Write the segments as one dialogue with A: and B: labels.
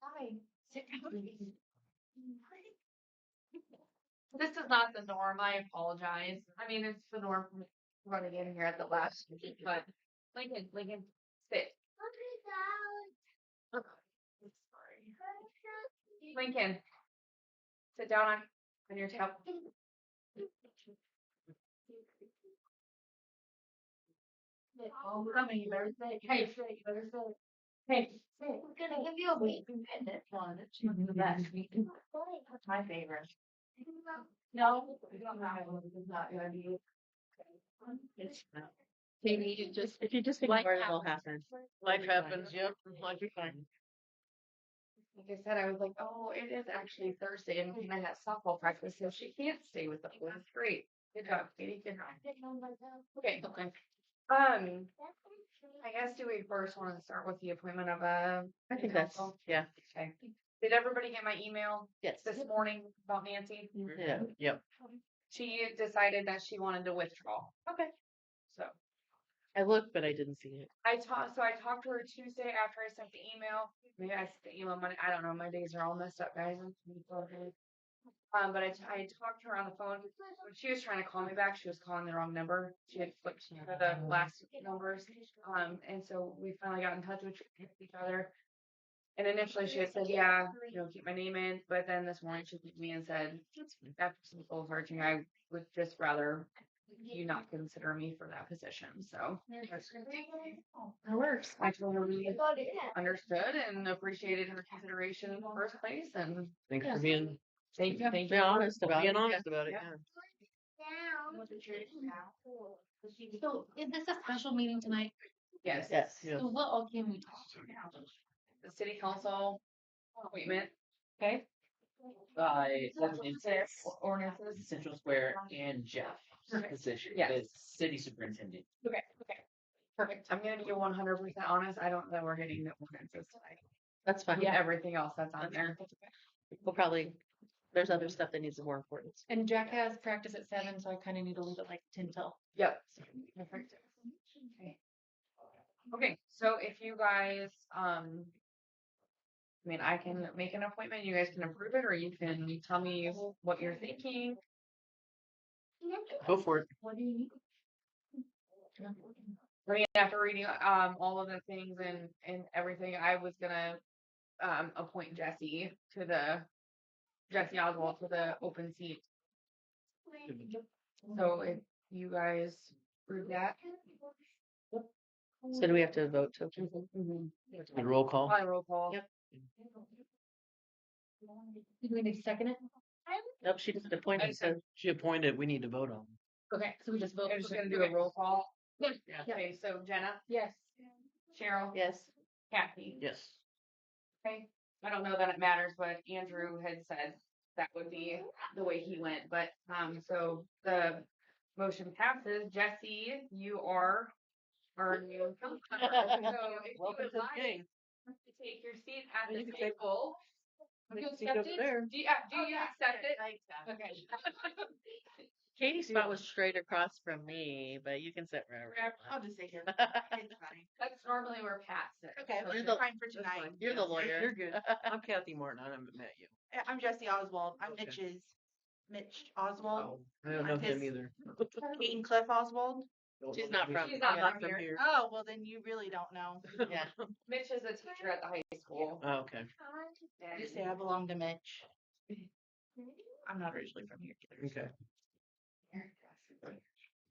A: Hi. Mm-hmm. This is not the norm, I apologize. I mean, it's the norm from running in here at the last, minute, but Lincoln, Lincoln, sit. Okay, I'm sorry. Lincoln. Sit down on, on your table. Oh, come here, you better sit. Hey, sit, you better sit. Hey, sit. We're gonna give you a wait minute one. It's
B: Mm-hmm.
A: the best. That's my favorite. No, we don't have one. It's not gonna be. It's not. Maybe you just.
B: If you just
A: Life
B: ignore it, it'll happen.
A: happens.
B: Life happens, yep, life is fine.
A: Like I said, I was like, oh, it is actually Thursday and I got softball practice, so she can't stay with the boys. Great. Good job, Katie. Good job. Okay, okay. Um, I guess do we first want to start with the appointment of a.
B: I think that's, yeah,
A: Okay. Did everybody get my email
B: yes.
A: this morning about Nancy?
B: Yeah, yep.
A: She decided that she wanted to withdraw. Okay. So.
B: I looked, but I didn't see it.
A: I talked, so I talked to her Tuesday after I sent the email. Maybe I sent the email Monday. I don't know. My days are all messed up, guys. I'm so sorry. Um, but I, t- I talked to her on the phone. When she was trying to call me back, she was calling the wrong number. She had flipped to the last numbers. Um, and so we finally got in touch with each other. And initially she had said, yeah, you know, keep my name in. But then this morning she looked at me and said, after some soul searching, I would just rather you not consider me for that position. So
C: That works.
A: I told her we understood and appreciated her consideration in the first place and
B: Thanks
C: Yeah.
B: for being,
A: thank you.
B: being honest about it. Being
A: Yeah.
B: honest about it,
A: Yeah.
B: yeah.
C: So is this a special meeting tonight?
A: Yes.
B: Yes, yes.
C: So what all can we talk
A: The city council appointment, okay?
D: Uh,
A: Ordinances. Ordinances.
D: Central Square and Jeff position, the
A: Yes.
D: city superintendent.
A: Okay, okay. Perfect. I'm gonna be one hundred percent honest. I don't know we're hitting the ordinances tonight.
B: That's fine.
A: Yeah, everything else that's on there.
B: We'll probably, there's other stuff that needs more importance.
C: And Jack has practice at seven, so I kind of need to leave at like ten till.
A: Yep. Perfect. Okay. Okay, so if you guys, um, I mean, I can make an appointment, you guys can approve it, or you can tell me what you're thinking.
B: Go for it.
C: What do you need?
A: I mean, after reading, um, all of the things and, and everything, I was gonna, um, appoint Jesse to the, Jesse Oswald to the open seat. So if you guys approve that.
B: So do we have to vote to
E: Mm-hmm.
D: And roll call.
A: Probably roll call.
B: Yep.
C: Do we need to second it?
B: Nope, she just appointed, so
D: She appointed, we need to vote on.
C: Okay, so we just vote.
A: I'm just
C: Okay.
A: gonna do a roll call.
D: Yeah.
A: Okay, so Jenna,
C: Yes.
A: Cheryl,
B: yes.
A: Kathy.
D: Yes.
A: Okay, I don't know that it matters, but Andrew had said that would be the way he went, but, um, so the motion passes. Jesse, you are our new council member. So if you
B: Welcome to
A: would
B: the
A: like
B: gang.
A: to take your seat at
B: You
A: the
B: can take-
A: table.
B: Take
A: You
B: your seat over
A: accept it?
B: there.
A: Do you, uh, do you accept it? Okay.
B: Katie's spot was straight across from me, but you can sit wherever.
A: Wherever-
F: I'll just sit here.
A: That's normally where Pat sits.
F: Okay,
A: so
B: You're
F: I'm
A: she's
B: the-
F: fine for
B: That's
F: tonight.
B: fine. You're the lawyer.
D: You're good. I'm Kathy Martin, I haven't met you.
F: I- I'm Jesse Oswald. I'm
D: Okay.
F: Mitch's, Mitch Oswald,
D: Oh, I don't know
F: I'm
D: him
F: his-
D: either.
F: Kate and Cliff Oswald.
B: She's not from-
A: She's not
B: Yeah.
A: from here.
F: Oh, well then you really don't know.
B: Yeah.
A: Mitch is a teacher at the high school.
D: Oh, okay.
A: and-
F: Just say I belong to Mitch. I'm not originally from here.
D: Okay.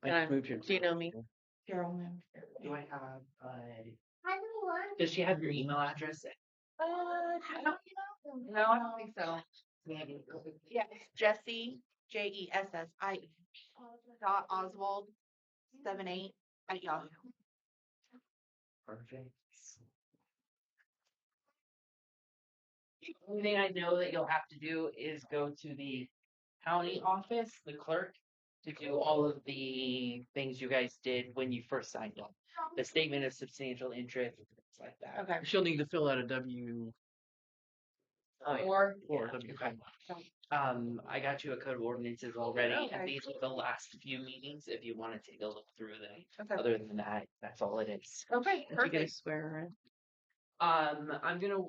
B: Uh,
D: I moved here.
B: do you know me?
F: Carol moved.
D: Do I have, uh? Does she have your email address?
F: Uh, do you know?
A: No, I don't think so.
F: Yeah, it's Jesse, J E S S I E dot Oswald, seven eight at Yahoo.
D: Perfect.
E: Only thing I know that you'll have to do is go to the county office, the clerk, to do all of the things you guys did when you first signed up. The statement of substantial interest, and things like that.
F: Okay.
D: She'll need to fill out a W
A: Or
D: four,
E: Oh, Yeah,
D: W
E: okay.
D: five.
E: Um, I got you a code of ordinances already,
F: Okay.
E: and these were the last few meetings, if you wanna take a look through them.
F: Okay.
E: Other than that, that's all it is.
A: Okay,
B: You guys swear, right?
E: Um, I'm gonna